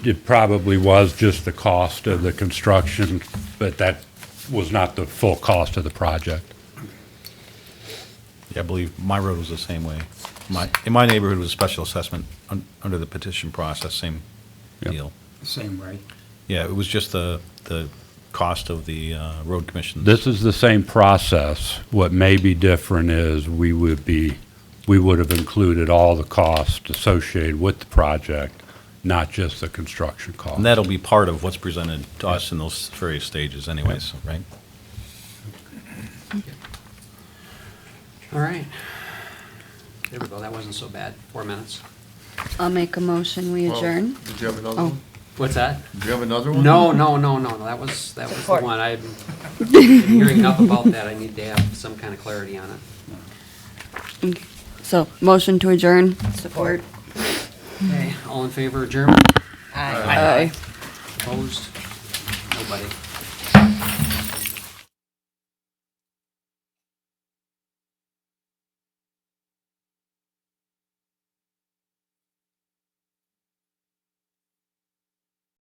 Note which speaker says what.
Speaker 1: It probably was just the cost of the construction, but that was not the full cost of the project.
Speaker 2: Yeah, I believe my road was the same way. My, in my neighborhood was a special assessment un- under the petition process, same
Speaker 1: Yep.
Speaker 2: deal.
Speaker 3: Same way.
Speaker 2: Yeah, it was just the, the cost of the uh, road commission.
Speaker 1: This is the same process. What may be different is we would be, we would have included all the costs associated with the project, not just the construction cost.
Speaker 2: And that'll be part of what's presented to us in those various stages anyways, right?
Speaker 3: All right. There we go, that wasn't so bad, four minutes.
Speaker 4: I'll make a motion, we
Speaker 5: Well,
Speaker 4: adjourn.
Speaker 5: Did you have another
Speaker 4: Oh.
Speaker 5: one?
Speaker 3: What's that?
Speaker 5: Did you have another one?
Speaker 3: No, no, no, no, no, that was, that was the
Speaker 6: Support.
Speaker 3: one, I'm hearing enough about that, I need to have some kind of clarity on it.
Speaker 4: So, motion to adjourn. Support.
Speaker 3: Okay, all in favor of German?
Speaker 6: Aye.
Speaker 4: Aye.
Speaker 3: Opposed? Nobody.